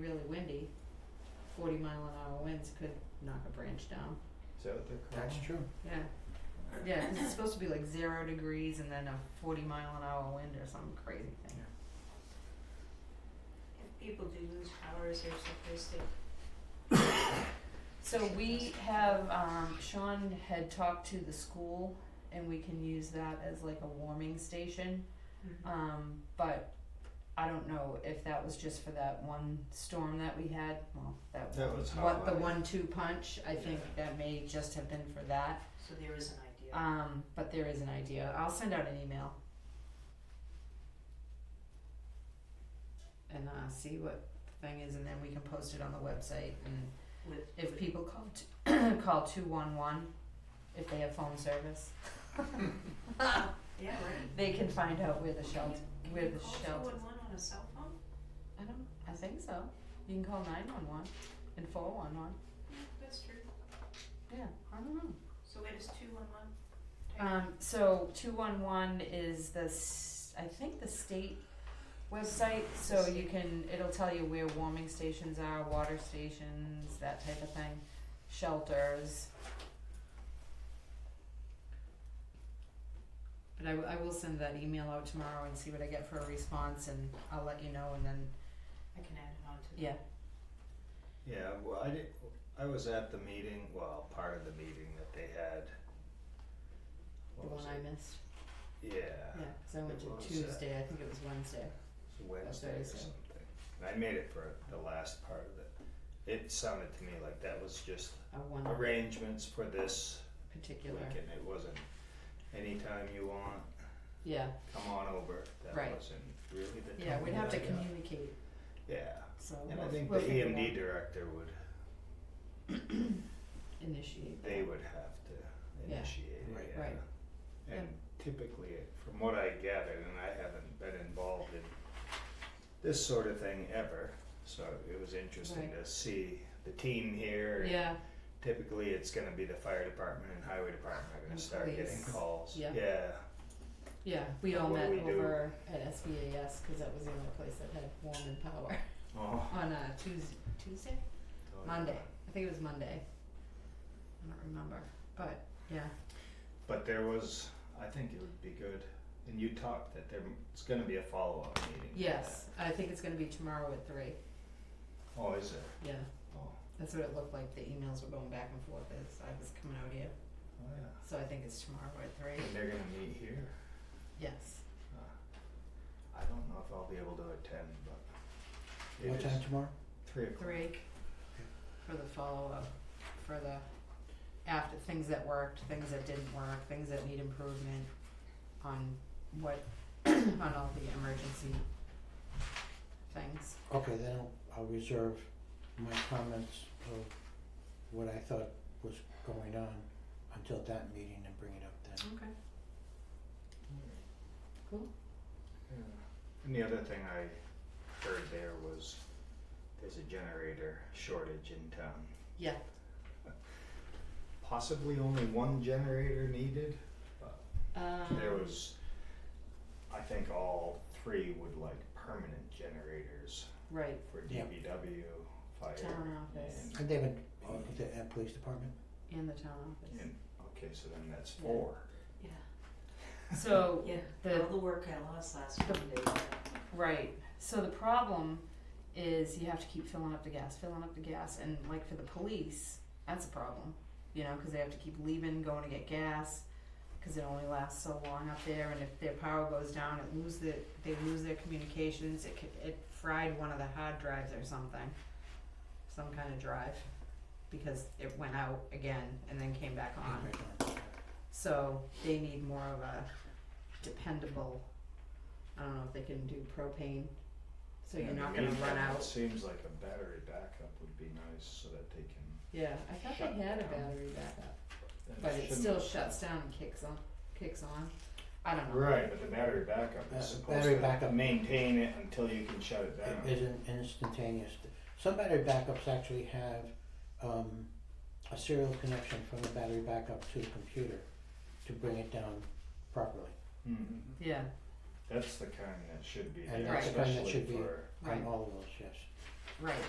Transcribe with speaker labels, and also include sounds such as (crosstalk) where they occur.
Speaker 1: really windy, forty mile an hour winds could knock a branch down.
Speaker 2: Is that what they're called?
Speaker 3: That's true.
Speaker 1: Yeah. Yeah, 'cause it's supposed to be like zero degrees and then a forty mile an hour wind or some crazy thing.
Speaker 4: If people do lose power, is there someplace they
Speaker 1: So we have, um, Sean had talked to the school and we can use that as like a warming station.
Speaker 4: Mm-hmm.
Speaker 1: Um, but I don't know if that was just for that one storm that we had, well, that,
Speaker 2: That was how.
Speaker 1: what, the
Speaker 2: I-
Speaker 1: one-two punch, I think that may just have been for that.
Speaker 4: So there is an idea.
Speaker 1: Um, but there is an idea. I'll send out an email. And uh, see what the thing is, and then we can post it on the website. And
Speaker 4: with
Speaker 1: if
Speaker 4: with-
Speaker 1: people call t- (coughs) call two one one, if they have phone service,
Speaker 4: Yeah, right.
Speaker 1: they can find out where the shelter.
Speaker 4: Can
Speaker 1: Where
Speaker 4: you
Speaker 1: the
Speaker 4: call
Speaker 1: shelter.
Speaker 4: 211 on a cell phone?
Speaker 1: I don't. I think so. You can call nine one one and four one one.
Speaker 4: That's true.
Speaker 1: Yeah, I don't know.
Speaker 4: So it is two one one? Uh,
Speaker 1: Um, so two one one is the s- I think the state website, so you can it'll tell you where warming stations are, water stations, that type of thing, shelters. But I, w- I will send that email out tomorrow and see what I get for a response, and I'll let you know, and then
Speaker 4: I can add it on to the.
Speaker 1: yeah,
Speaker 2: Yeah, well, I did, I was at the meeting, well, part of the meeting that they had.
Speaker 1: the
Speaker 2: What
Speaker 1: one
Speaker 2: was
Speaker 1: I
Speaker 2: it?
Speaker 1: missed. Yeah,
Speaker 2: Yeah,
Speaker 1: 'cause I went
Speaker 2: It was,
Speaker 1: to
Speaker 2: uh,
Speaker 1: Tuesday. I think it was Wednesday.
Speaker 2: it's Wednesday or
Speaker 1: Thursday.
Speaker 2: something. And I made it for the last part of it. It sounded to me like that was just
Speaker 1: A uh, one
Speaker 2: arrangements for this
Speaker 1: particular.
Speaker 2: weekend. It wasn't anytime you want,
Speaker 1: Yeah,
Speaker 2: come on over. That
Speaker 1: Right.
Speaker 2: wasn't really the
Speaker 1: yeah.
Speaker 2: tone
Speaker 1: We'd have to
Speaker 2: that I got.
Speaker 1: communicate.
Speaker 2: Yeah,
Speaker 1: So
Speaker 2: and I
Speaker 1: we'll-
Speaker 2: think the
Speaker 1: we'll
Speaker 2: E
Speaker 1: figure it
Speaker 2: EMD
Speaker 1: out.
Speaker 2: director would, (clears throat)
Speaker 1: initiate.
Speaker 2: they
Speaker 1: that.
Speaker 2: would have to
Speaker 1: Yeah.
Speaker 2: initiate it,
Speaker 3: Right.
Speaker 2: yeah.
Speaker 1: Right.
Speaker 2: And typically, it- from what I gathered, and I haven't been involved in this sort of thing ever, so it was interesting
Speaker 1: Right.
Speaker 2: to see the team here. and
Speaker 1: Yeah,
Speaker 2: Typically, it's gonna be the fire department and highway department are gonna
Speaker 1: And
Speaker 2: start getting
Speaker 1: police.
Speaker 2: calls,
Speaker 1: Yeah.
Speaker 2: yeah,
Speaker 1: yeah, we all
Speaker 2: What
Speaker 1: met
Speaker 2: do we do?
Speaker 1: over at SBAS, cause that was the only place that had warm and power, (laughs)
Speaker 2: oh.
Speaker 1: on uh Tuesday, Tuesday,
Speaker 2: oh, yeah.
Speaker 1: Monday, I think it was Monday. I don't remember, but, yeah,
Speaker 2: But there was, I think it would be good, and you talked that there's gonna be a follow-up meeting. for
Speaker 1: yes, I think it's gonna be tomorrow at three,
Speaker 2: that. Oh, is it?
Speaker 1: yeah,
Speaker 2: Oh,
Speaker 1: that's what it looked like, the emails were going back and forth as I was coming out here,
Speaker 2: oh yeah.
Speaker 1: so I think it's tomorrow at three,
Speaker 2: And they're gonna meet here.
Speaker 1: yes.
Speaker 2: Uh, I don't know if I'll be able to attend, but. it
Speaker 3: What
Speaker 2: is
Speaker 3: time tomorrow?
Speaker 2: Three o'clock.
Speaker 1: Three for the follow-up, for the after, things that worked, things that didn't work, things that need improvement on what, (clears throat) on all the emergency things.
Speaker 3: Okay, then I'll, I'll reserve my comments of what I thought was going on until that meeting and bring it up then.
Speaker 1: Okay. Cool.
Speaker 2: Yeah. And the other thing I heard there was there's a generator shortage in town.
Speaker 1: Yeah.
Speaker 2: Possibly only one generator needed. There
Speaker 1: Um.
Speaker 2: was, I think all three would like permanent generators
Speaker 1: Um, Right,
Speaker 2: for
Speaker 3: Yeah.
Speaker 2: DPW, fire.
Speaker 1: Town office.
Speaker 2: and-
Speaker 3: And David, the uh, police department?
Speaker 1: in the town office.
Speaker 2: And, okay, so then that's
Speaker 1: Yeah.
Speaker 2: four.
Speaker 4: Yeah.
Speaker 1: So,
Speaker 4: (laughs) Yeah,
Speaker 1: The-
Speaker 4: all the work I lost last
Speaker 1: the-
Speaker 4: Monday, yeah.
Speaker 1: right, so the problem is you have to keep filling up the gas, filling up the gas, and like for the police, that's a problem. You know, cause they have to keep leaving, going to get gas, cause it only lasts so long up there, and if their power goes down, it lose the, they lose their communications, it could, it fried one of the hard drives or something. Some kind of drive, because it went out again and then came back on. So they need more of a dependable, I don't know if they can do propane, so you're
Speaker 2: In the
Speaker 1: not gonna
Speaker 2: meantime,
Speaker 1: run
Speaker 2: It
Speaker 1: out.
Speaker 2: seems like a battery backup would be nice so that they can,
Speaker 1: Yeah, I thought they
Speaker 2: Shut
Speaker 1: had a
Speaker 2: down.
Speaker 1: battery backup,
Speaker 2: and
Speaker 1: but it
Speaker 2: shouldn't-
Speaker 1: still shuts down and kicks on, kicks on, I don't know.
Speaker 2: Right, but the battery backup
Speaker 3: Uh,
Speaker 2: is supposed
Speaker 3: battery
Speaker 2: to
Speaker 3: backup-
Speaker 2: maintain it until you can shut it
Speaker 3: It
Speaker 2: down.
Speaker 3: isn't instantaneous. Some battery backups actually have um a serial connection from the battery backup to the computer to bring it down properly.
Speaker 2: Mhm.
Speaker 1: Yeah,
Speaker 2: That's the kind that should be
Speaker 3: And
Speaker 2: there,
Speaker 1: that's
Speaker 3: the kind that
Speaker 2: especially
Speaker 3: should be-
Speaker 2: for,
Speaker 3: On
Speaker 1: Right.
Speaker 3: all of those, yes.
Speaker 1: right.